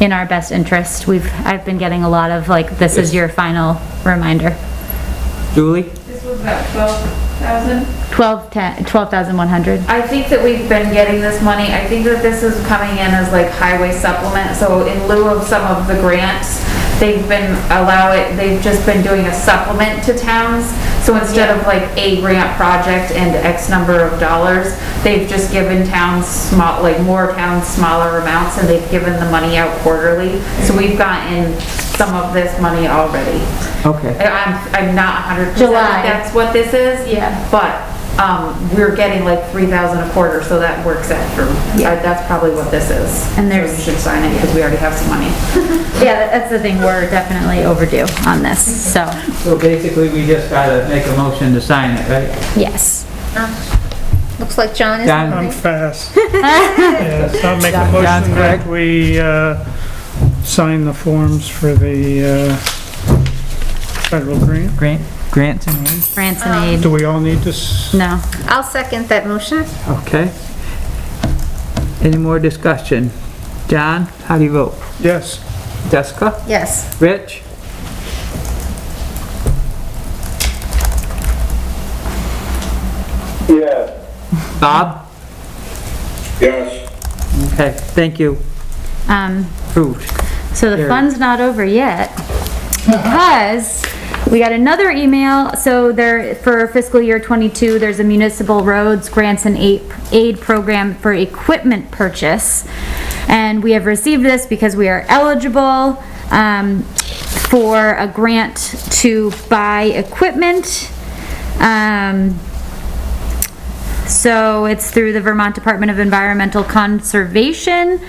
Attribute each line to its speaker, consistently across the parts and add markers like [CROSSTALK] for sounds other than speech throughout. Speaker 1: in our best interest. We've, I've been getting a lot of like, this is your final reminder.
Speaker 2: Julie?
Speaker 3: This was about twelve thousand?
Speaker 1: Twelve ten, twelve thousand one hundred.
Speaker 3: I think that we've been getting this money, I think that this is coming in as like highway supplement, so in lieu of some of the grants, they've been allow it, they've just been doing a supplement to towns, so instead of like a grant project and X number of dollars, they've just given towns small, like more towns smaller amounts, and they've given the money out quarterly, so we've gotten some of this money already.
Speaker 2: Okay.
Speaker 3: I- I'm, I'm not hundred percent
Speaker 1: July.
Speaker 3: that's what this is.
Speaker 1: Yeah.
Speaker 3: But, um, we're getting like three thousand a quarter, so that works out for,
Speaker 1: Yeah.
Speaker 3: uh, that's probably what this is.
Speaker 1: And
Speaker 3: So
Speaker 1: there's-
Speaker 3: You should sign it, because we already have some money.
Speaker 1: Yeah, that- that's the thing, we're definitely overdue on this, so,
Speaker 2: So basically, we just gotta make a motion to sign it, right?
Speaker 1: yes.
Speaker 4: Looks like John is.
Speaker 2: John,
Speaker 5: I'm fast. Yes, I'll make a
Speaker 2: John's
Speaker 5: motion
Speaker 2: correct.
Speaker 5: that we uh, sign the forms for the uh, federal grant.
Speaker 2: Grant, Grant's in here?
Speaker 1: France and aid,
Speaker 5: Do we all need to, s-
Speaker 1: no.
Speaker 4: I'll second that motion.
Speaker 2: Okay. Any more discussion? John, how do you vote?
Speaker 5: yes,
Speaker 2: Jessica?
Speaker 4: Yes.
Speaker 2: Rich?
Speaker 6: Yes,
Speaker 2: Bob?
Speaker 6: yes,
Speaker 2: Okay, thank you.
Speaker 1: Um,
Speaker 2: Approved.
Speaker 1: So the
Speaker 2: There.
Speaker 1: fun's not over yet because we got another email. So there, for fiscal year twenty-two, there's a municipal roads grants and aid, aid program for equipment purchase. And we have received this because we are eligible, um, for a grant to buy equipment. Um, so it's through the Vermont Department of Environmental Conservation.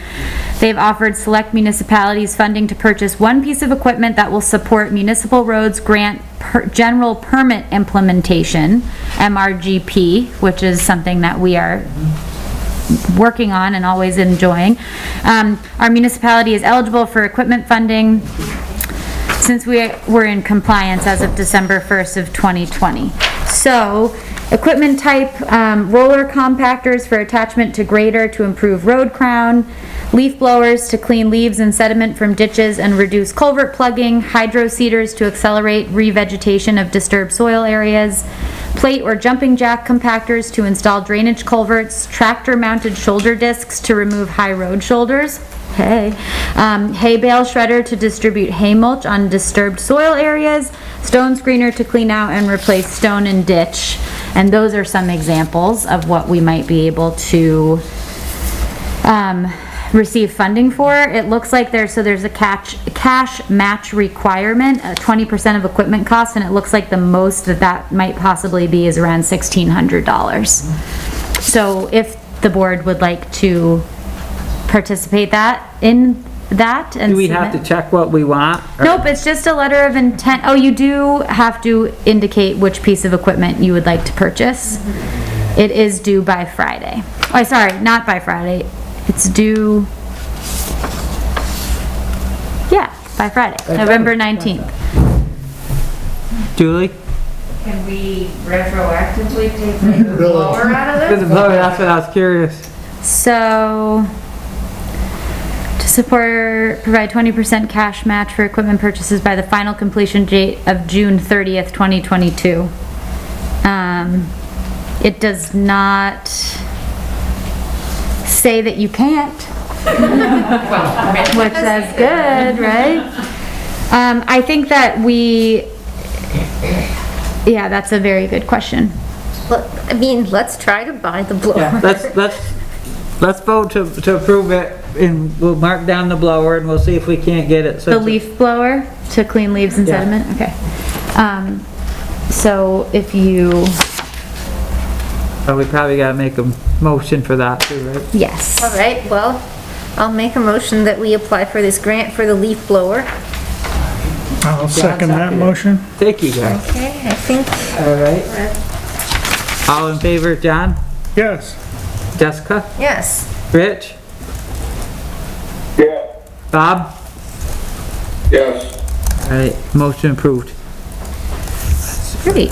Speaker 1: They've offered select municipalities funding to purchase one piece of equipment that will support municipal roads grant per, general permit implementation, MRGP, which is something that we are working on and always enjoying. Um, our municipality is eligible for equipment funding since we were in compliance as of December 1st of 2020. So, equipment type, um, roller compactors for attachment to grader to improve road crown, leaf blowers to clean leaves and sediment from ditches and reduce culvert plugging, hydro seeders to accelerate revegetation of disturbed soil areas, plate or jumping jack compactors to install drainage culverts, tractor-mounted shoulder discs to remove high road shoulders, hay, um, hay bale shredder to distribute hay mulch on disturbed soil areas, stone screener to clean out and replace stone and ditch. And those are some examples of what we might be able to um, receive funding for. It looks like there's, so there's a catch, cash match requirement, uh, twenty percent of equipment costs, and it looks like the most that that might possibly be is around sixteen hundred dollars. So if the board would like to participate that, in that and.
Speaker 2: Do we have to
Speaker 1: submit-
Speaker 2: check what we want? or-
Speaker 1: Nope, it's just a letter of intent. Oh, you do have to indicate which piece of equipment you would like to purchase. It is due by Friday. Oh, sorry, not by Friday. It's due. Yeah, by Friday, November 19th.
Speaker 2: Julie?
Speaker 3: Can we retroactively take the blower out of
Speaker 2: That's what I was curious.
Speaker 1: So, to support, provide 20% cash match for equipment purchases by the final completion date of June 30th, 2022. Um, It does not say that you can't, [LAUGHS] which is good, right? Um, I think that we, yeah, that's a very good question.
Speaker 4: Let- I mean, let's try to buy the
Speaker 2: Yeah,
Speaker 4: blower.
Speaker 2: let's, let's, let's vote to, to approve it and we'll mark down the blower and we'll see if we can't get it.
Speaker 1: The leaf blower to clean leaves and
Speaker 2: Yeah.
Speaker 1: sediment, okay. Um, so if you,
Speaker 2: So we probably gotta make a motion for that too, right?
Speaker 1: yes.
Speaker 4: [LAUGHS] All right, well, I'll make a motion that we apply for this grant for the leaf blower.
Speaker 5: I'll second that
Speaker 2: second it.
Speaker 5: motion.
Speaker 2: Thank you guys.
Speaker 4: Okay, I think,
Speaker 2: All right. All in favor, John,
Speaker 5: Yes.
Speaker 2: Jessica,
Speaker 4: yes.
Speaker 2: Rich,
Speaker 6: yes,
Speaker 2: Bob?
Speaker 6: yes.
Speaker 2: All right, motion approved.
Speaker 4: Great.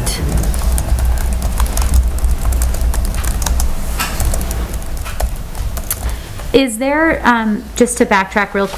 Speaker 1: Is there, um, just to backtrack real quick,